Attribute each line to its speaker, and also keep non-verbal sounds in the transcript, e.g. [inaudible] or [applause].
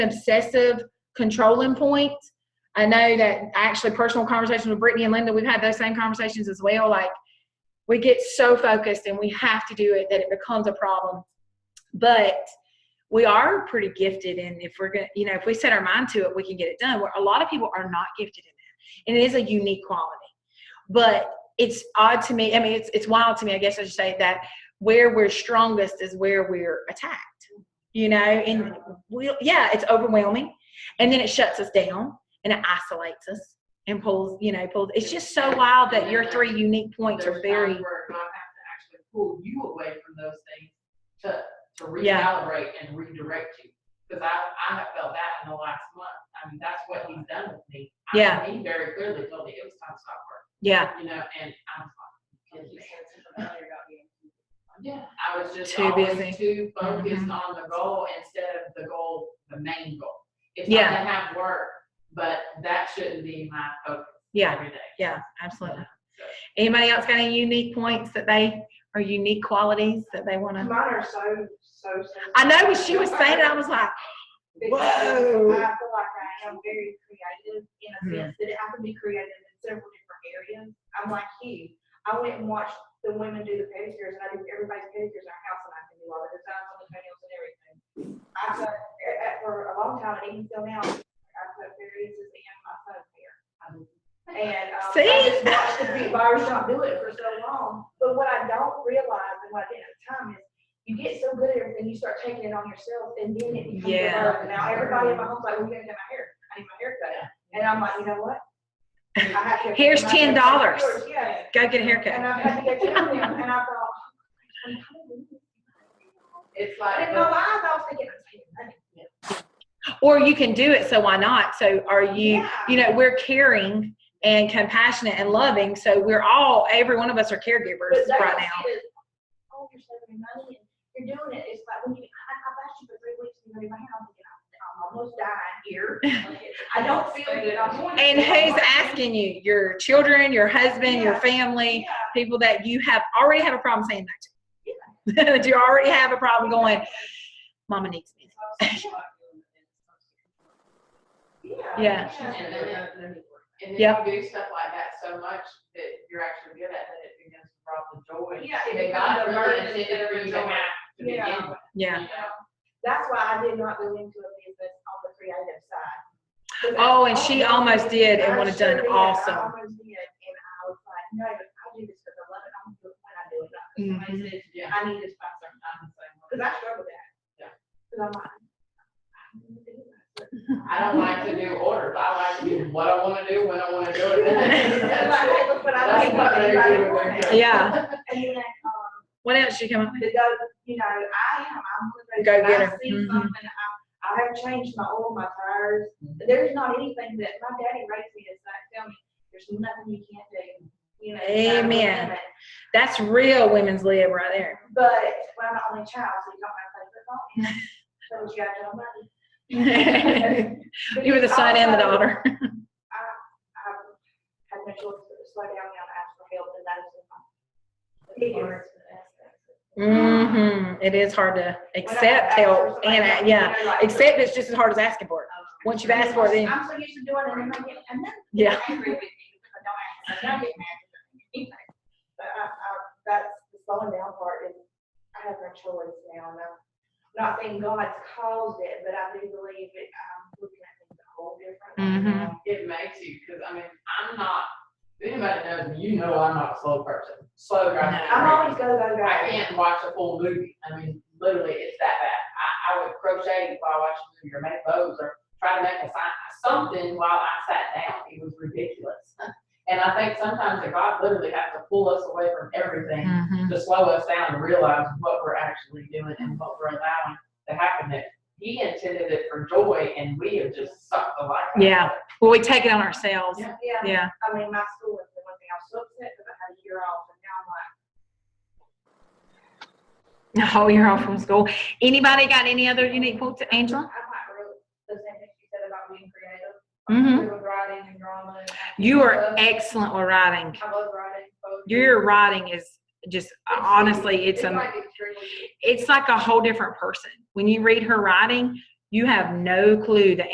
Speaker 1: obsessive controlling point. I know that actually personal conversations with Brittany and Linda, we've had those same conversations as well. Like we get so focused and we have to do it that it becomes a problem. But we are pretty gifted and if we're gonna you know, if we set our mind to it, we can get it done. Where a lot of people are not gifted in that. And it is a unique quality. But it's odd to me, I mean it's it's wild to me, I guess I should say that where we're strongest is where we're attacked. You know, and we yeah, it's overwhelming. And then it shuts us down and it isolates us and pulls, you know, pulls. It's just so wild that your three unique points are
Speaker 2: There's
Speaker 1: very.
Speaker 2: times where I have to actually pull you away from those things to, to
Speaker 1: Yeah.
Speaker 2: recalibrate and redirect you. Because I, I have felt that in the last month. I mean, that's what he's done with me. I mean,
Speaker 1: Yeah.
Speaker 2: He very clearly told me it was time to stop work,
Speaker 1: Yeah,
Speaker 2: you know, and I'm like, "Kidding me." yeah, I was just
Speaker 1: Too busy. Mm-hmm.
Speaker 2: always too focused on the goal instead of the goal, the main goal. It's not
Speaker 1: Yeah.
Speaker 2: to have work, but that shouldn't be my focus
Speaker 1: yeah,
Speaker 2: every day.
Speaker 1: [laughs] yeah, absolutely. Anybody else got any unique points that they are unique qualities that they want to?
Speaker 3: Mine are so, so. sensitive.
Speaker 1: I know when she was saying it, I was like,
Speaker 3: Because
Speaker 1: Whoa.
Speaker 3: I feel like I am very creative in a sense that I can be creative in several different areas. I'm like you. I went and watched the women do the pedicures and I do everybody's pedicures in our house and I can do all the designs on the toenails and everything. I put, uh, uh, for a long time and even still now, I put various in my phone hair. And, um, I
Speaker 1: See?
Speaker 3: just watched the big barbershop do it for so long. But what I don't realize and what I didn't at the time is you get so good at everything, you start taking it on yourself and then it becomes your
Speaker 1: Yeah.
Speaker 3: burden. Now, everybody in my home's like, we're gonna get my hair. I need my hair cut. And I'm like, you know what? I have to-
Speaker 1: Here's $10.
Speaker 3: Yeah.
Speaker 1: go get a
Speaker 3: And
Speaker 1: haircut.
Speaker 3: I had to get to them, and I thought. [laughs]
Speaker 2: It's
Speaker 3: But
Speaker 2: like.
Speaker 3: in my mind, I was thinking, I'm taking money.
Speaker 1: Or you can do it, so why not? So are you, you know, we're caring and compassionate and loving. So we're all, every one of us are caregivers
Speaker 3: But they
Speaker 1: right
Speaker 3: don't
Speaker 1: now.
Speaker 3: see it as, Oh, you're saving money, and you're doing it, it's like, when you, I, I've asked you for three weeks, and you're in my house, and I'm almost
Speaker 1: [laughs]
Speaker 3: dying here. I don't feel good, I'm going. to-
Speaker 1: And who's asking you? Your children, your husband, your
Speaker 3: Yeah.
Speaker 1: family,
Speaker 3: Yeah.
Speaker 1: people that you have already have a problem saying that to. [laughs] That you already have a problem going, Mama needs me.
Speaker 3: Yeah.
Speaker 1: [laughs] Yeah.
Speaker 2: And then, and
Speaker 1: Yeah.
Speaker 2: then you do stuff like that so much that you're actually good at that it begins to rob the joy.
Speaker 3: Yeah, it
Speaker 2: That
Speaker 3: becomes
Speaker 2: God
Speaker 3: a
Speaker 2: really
Speaker 3: burden
Speaker 2: intended for you to
Speaker 3: instead of a
Speaker 2: have to begin
Speaker 3: Yeah.
Speaker 2: with.
Speaker 1: Yeah.
Speaker 2: you know?
Speaker 3: That's why I did not go into a business on the creative side.
Speaker 1: Oh, and she almost did and
Speaker 3: I
Speaker 1: would have
Speaker 3: sure
Speaker 1: done
Speaker 3: did. I
Speaker 1: awesome.
Speaker 3: almost did, and I was like, no, I do this because I love it, I'm gonna do it when I do it. not
Speaker 1: Mm-hmm.
Speaker 3: 'cause Somebody says,
Speaker 2: Yeah.
Speaker 3: I need this by certain time, because I struggle with that.
Speaker 2: Yeah.
Speaker 3: Because I'm like. I need to do that.
Speaker 2: I don't like to do orders. I like to do what I wanna do, when I wanna do
Speaker 3: [laughs]
Speaker 2: it. [laughs]
Speaker 3: That's like, hey, look what I
Speaker 2: That's
Speaker 3: like,
Speaker 2: what
Speaker 3: what
Speaker 2: they
Speaker 3: everybody
Speaker 2: do when
Speaker 3: wants.
Speaker 2: they're-
Speaker 1: Yeah.
Speaker 3: And then, um,
Speaker 1: What else did you come up with?
Speaker 3: to go, you know, I am, I'm gonna
Speaker 1: Go
Speaker 3: go, when
Speaker 1: getter.
Speaker 3: I see
Speaker 1: Mhm.
Speaker 3: something, I, I have changed my oil, my tires, there's not anything that, my daddy raised me, it's like, tell me, there's nothing you can't do, you know. you gotta
Speaker 1: Amen.
Speaker 3: do it.
Speaker 1: That's real women's lib right there.
Speaker 3: But, well, I'm the only child, so you don't have to play football,
Speaker 1: [laughs]
Speaker 3: and so you gotta tell money.
Speaker 1: [laughs] You were the son and the daughter.
Speaker 3: I had no choice but to slow down and ask for help, and that is the problem. It is.
Speaker 1: Mm-hmm. It is hard to
Speaker 3: When I
Speaker 1: accept
Speaker 3: ask for
Speaker 1: help
Speaker 3: somebody
Speaker 1: and,
Speaker 3: else,
Speaker 1: uh,
Speaker 3: you
Speaker 1: yeah,
Speaker 3: know, like-
Speaker 1: accept it's just as hard as asking for it. Once you've asked for it, then,
Speaker 3: I'm so used to doing it, and then I get, and then.
Speaker 1: yeah.
Speaker 3: Angry with me, because I don't ask, and I get mad. Anyway, But I, I, that's the slowing down part is, I have no choice now, and I'm not saying God's caused it, but I do believe it, um, I'm looking at things a whole different.
Speaker 1: Mhm.
Speaker 2: It makes you, because I mean, I'm not, if anybody knows me, you know I'm not a slow person. Slow drives me
Speaker 3: I'm
Speaker 2: crazy.
Speaker 3: always go, go, go.
Speaker 2: I can't watch a full movie. I mean, literally, it's that bad. I, I would crochet while watching a movie or make bows or try to make a sign, something while I sat down. It was ridiculous. And I think sometimes that God literally has to pull us away from everything to slow us down and realize what we're actually doing and what we're allowing to happen there. He intended it for joy and we have just sucked the life out of it.
Speaker 1: Yeah. Well, we take it on ourselves.
Speaker 2: Yeah.
Speaker 3: Yeah,
Speaker 1: Yeah. [laughs]
Speaker 3: I mean, my school was the one thing I was so upset because I had a year off, and now I'm like,
Speaker 1: A whole year off Oh, from school. Anybody got any other unique points, Angela?
Speaker 3: I'm like, really, the same thing you said about being creative.
Speaker 1: Mhm.
Speaker 3: Doing Writing and drama. and acting.
Speaker 1: You
Speaker 3: I
Speaker 1: are
Speaker 3: love-
Speaker 1: excellent with writing.
Speaker 3: I love writing. poetry.
Speaker 1: Your writing is just honestly, it's um, a,
Speaker 3: like extremely-
Speaker 1: it's like a whole different person. When you read her writing, You have no clue the